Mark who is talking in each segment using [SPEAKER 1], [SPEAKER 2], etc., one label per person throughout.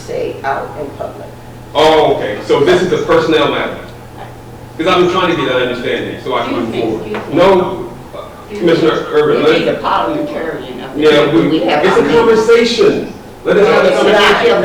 [SPEAKER 1] say out in public.
[SPEAKER 2] Oh, okay, so this is a personnel matter? Because I've been trying to get an understanding, so I can move forward. No, Commissioner Urban,
[SPEAKER 3] You need a
[SPEAKER 2] let,
[SPEAKER 3] parliamentarian up there.
[SPEAKER 2] yeah, we,
[SPEAKER 1] We have
[SPEAKER 2] it's a
[SPEAKER 1] our-
[SPEAKER 2] conversation. Let us have a
[SPEAKER 3] It's not,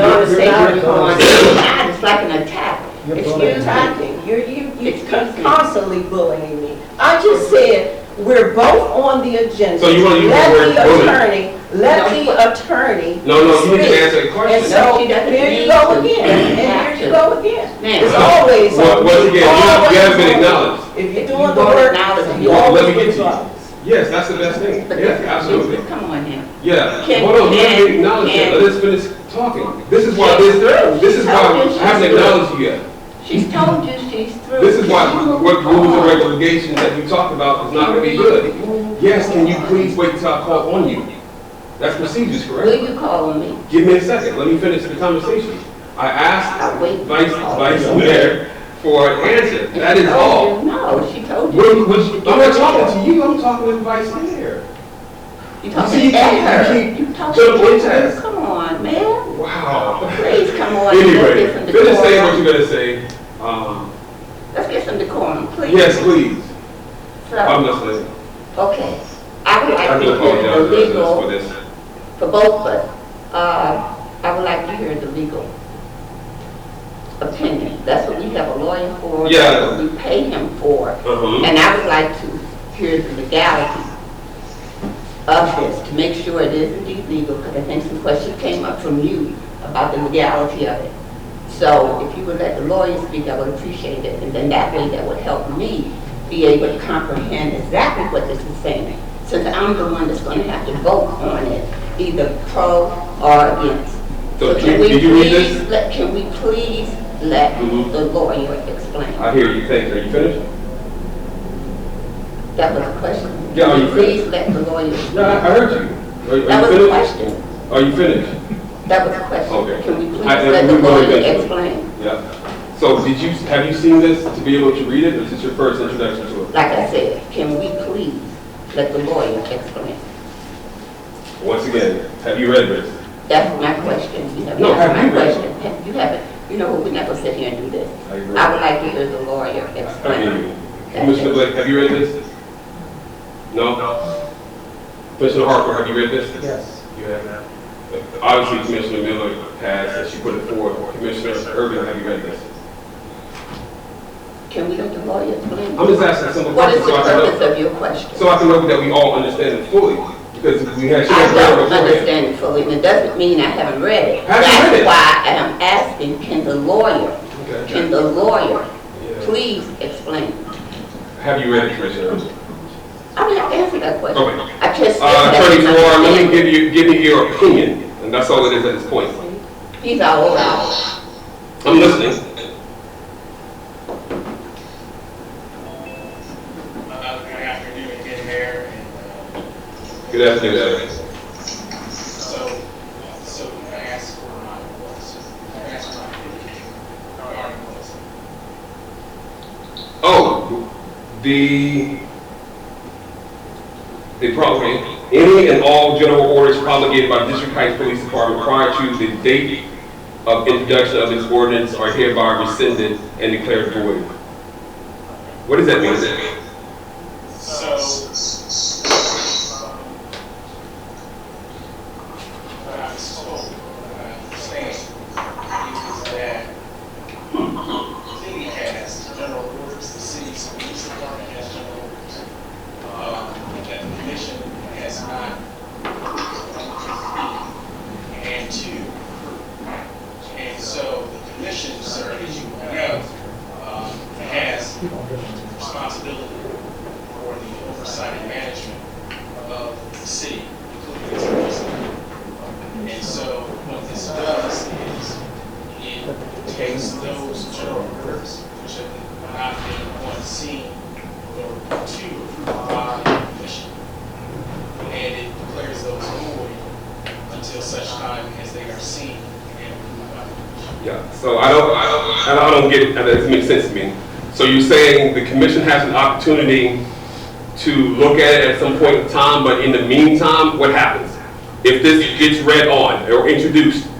[SPEAKER 2] conversation.
[SPEAKER 3] you'll notice
[SPEAKER 2] You're-
[SPEAKER 3] they
[SPEAKER 2] you're-
[SPEAKER 3] already going, it's like an attack.
[SPEAKER 1] Excuse me, you're, you, you
[SPEAKER 3] It's conflict.
[SPEAKER 1] constantly bullying me. I just said, we're both on the agenda.
[SPEAKER 2] So you wanna use the word bully?
[SPEAKER 1] Let the attorney, let the attorney.
[SPEAKER 2] No, no, you need
[SPEAKER 1] speak.
[SPEAKER 2] to answer a
[SPEAKER 1] And
[SPEAKER 2] question.
[SPEAKER 1] so,
[SPEAKER 3] She doesn't
[SPEAKER 1] here you
[SPEAKER 3] need
[SPEAKER 1] go
[SPEAKER 3] to.
[SPEAKER 1] again, and here you go again. It's
[SPEAKER 3] Now,
[SPEAKER 1] always
[SPEAKER 2] Well,
[SPEAKER 1] on.
[SPEAKER 2] Once again, you have- you haven't been
[SPEAKER 1] Always on.
[SPEAKER 2] acknowledged.
[SPEAKER 1] If you're
[SPEAKER 3] You
[SPEAKER 1] doing the
[SPEAKER 3] won't
[SPEAKER 1] work,
[SPEAKER 3] acknowledge it.
[SPEAKER 1] you
[SPEAKER 2] Well, let me
[SPEAKER 1] always
[SPEAKER 2] get to you.
[SPEAKER 1] acknowledge.
[SPEAKER 2] Yes, that's the best thing.
[SPEAKER 3] but
[SPEAKER 2] Yes,
[SPEAKER 3] this-
[SPEAKER 2] absolutely.
[SPEAKER 3] Come on now.
[SPEAKER 2] Yeah,
[SPEAKER 3] Can-
[SPEAKER 2] hold on, let me
[SPEAKER 3] can-
[SPEAKER 2] acknowledge that,
[SPEAKER 3] can- Oh,
[SPEAKER 2] let us finish talking. This is why, this, this is why I haven't acknowledged you yet.
[SPEAKER 3] She's told you she's through.
[SPEAKER 2] This is why, what rules and
[SPEAKER 3] Come on.
[SPEAKER 2] regulations that you talked about is not gonna be good. Yes, can you please wait till I call on you? That's procedures,
[SPEAKER 3] Will
[SPEAKER 2] correct?
[SPEAKER 3] you call on me?
[SPEAKER 2] Give me a second, let me finish the conversation. I asked
[SPEAKER 3] I'll Oh, wait.
[SPEAKER 2] Vice, Vice Mayor for an answer, that is all.
[SPEAKER 3] Oh, No, she told
[SPEAKER 2] What,
[SPEAKER 3] you.
[SPEAKER 2] what, I'm not talking to you, I'm talking to the Vice Mayor.
[SPEAKER 3] You
[SPEAKER 2] you
[SPEAKER 3] talking
[SPEAKER 2] keep-
[SPEAKER 3] to her.
[SPEAKER 2] you
[SPEAKER 3] You talking
[SPEAKER 2] jumping
[SPEAKER 3] to
[SPEAKER 2] into
[SPEAKER 3] her.
[SPEAKER 2] this.
[SPEAKER 3] Come on, man.
[SPEAKER 2] Wow.
[SPEAKER 3] Please, come on. Let's
[SPEAKER 2] Anyway,
[SPEAKER 3] get some
[SPEAKER 2] finish saying what
[SPEAKER 3] decorum.
[SPEAKER 2] you're gonna say. Um,
[SPEAKER 3] Let's get some decorum, please.
[SPEAKER 2] yes, please, I'm
[SPEAKER 3] So,
[SPEAKER 2] listening.
[SPEAKER 3] okay. I would
[SPEAKER 2] I do
[SPEAKER 3] like to hear
[SPEAKER 2] apologize
[SPEAKER 3] the
[SPEAKER 2] to the residents for
[SPEAKER 3] legal,
[SPEAKER 2] this.
[SPEAKER 3] for both of us. Uh, I would like to hear the legal opinion. That's what we have a lawyer for. that's
[SPEAKER 2] Yeah.
[SPEAKER 3] what We pay him for.
[SPEAKER 2] Uh-huh.
[SPEAKER 3] And I would like to hear the legality of this, to make sure it is indeed legal, because I think some questions came up from you about the legality of it. So if you would let the lawyer speak, I would appreciate it, and then that way that would help me be able to comprehend exactly what this is saying, since I'm the one that's gonna have to vote on it, either pro or against.
[SPEAKER 2] So
[SPEAKER 3] can
[SPEAKER 2] did
[SPEAKER 3] we
[SPEAKER 2] you- did you read
[SPEAKER 3] please
[SPEAKER 2] this?
[SPEAKER 3] let- Can we please let
[SPEAKER 2] Mhm.
[SPEAKER 3] the lawyer explain?
[SPEAKER 2] I hear you, thanks, are you finished?
[SPEAKER 3] That was a question.
[SPEAKER 2] Yeah, are you
[SPEAKER 3] Please let the lawyer.
[SPEAKER 2] No, I I heard you. Are-
[SPEAKER 3] That
[SPEAKER 2] Are
[SPEAKER 3] was a
[SPEAKER 2] you finished?
[SPEAKER 3] question.
[SPEAKER 2] Are you finished?
[SPEAKER 3] That was a question.
[SPEAKER 2] Okay.
[SPEAKER 3] Can we please
[SPEAKER 2] I- uh,
[SPEAKER 3] let the
[SPEAKER 2] we will
[SPEAKER 3] lawyer
[SPEAKER 2] eventually.
[SPEAKER 3] explain?
[SPEAKER 2] Yeah. So did you, have you seen this to be able to read it, or is this your first introduction to it?
[SPEAKER 3] Like I said, can we please let the lawyer explain?
[SPEAKER 2] Once again, have you read this?
[SPEAKER 3] That's my question. You have
[SPEAKER 2] No,
[SPEAKER 3] not
[SPEAKER 2] have
[SPEAKER 3] my
[SPEAKER 2] you read it?
[SPEAKER 3] question. Have- You haven't, you know, what, we're not gonna sit here and do this.
[SPEAKER 2] I agree.
[SPEAKER 3] I would like to hear the lawyer
[SPEAKER 2] I hear you.
[SPEAKER 3] explain.
[SPEAKER 2] Commissioner Blake, have you read this? No? Commissioner Harper, have you read this?
[SPEAKER 4] Yes.
[SPEAKER 2] You have not. Obviously, Commissioner Miller has, and she put it forward. Commissioner Urban, have you read this?
[SPEAKER 3] Can we let the lawyer explain?
[SPEAKER 2] I'm just asking a simple
[SPEAKER 3] What
[SPEAKER 2] question
[SPEAKER 3] is the
[SPEAKER 2] so I can know.
[SPEAKER 3] purpose of your question?
[SPEAKER 2] So I can know that we all understand it fully, because we had, she
[SPEAKER 3] I
[SPEAKER 2] had read it
[SPEAKER 3] don't
[SPEAKER 2] beforehand.
[SPEAKER 3] understand it fully, and it doesn't mean I haven't read it.
[SPEAKER 2] Have you read it?
[SPEAKER 3] That's why I'm asking, can the lawyer,
[SPEAKER 2] Okay.
[SPEAKER 3] can the lawyer
[SPEAKER 2] Yeah.
[SPEAKER 3] please explain?
[SPEAKER 2] Have you read it, Commissioner?
[SPEAKER 3] I mean, I answered that question.
[SPEAKER 2] Okay.
[SPEAKER 3] I just.
[SPEAKER 2] Uh, Attorney Farrar, let me give you, give me your opinion, and that's all it is at this point.
[SPEAKER 3] He's all over.
[SPEAKER 2] I'm listening.
[SPEAKER 5] Uh, Good afternoon again, Mayor. And, uh,
[SPEAKER 2] Good afternoon, Evan.
[SPEAKER 5] So, so I asked for my voice. I asked for my opinion. Or our voice.
[SPEAKER 2] Oh, the, the property, any and all general orders promulgated by District Heights Police Department prior to the date of introduction of this ordinance are hereby rescinded and declared void. What does that mean?
[SPEAKER 5] So. um, What I was told, what I was saying, is that city has general orders, the city's police department has general orders. Um, that the commission has not. And two, and so the commission, sir, as you know, um, has responsibility for the oversight and management of the city, including its police. And so what this does is it takes those general orders, which have not been on scene or to approved by the commission, and it declares those void until such time as they are seen and approved by the commission.
[SPEAKER 2] Yeah, so I don't, I don't, I don't get, it. that doesn't make sense to me. So you're saying the commission has an opportunity to look at it at some point in time, but in the meantime, what happens? If this gets read on or introduced,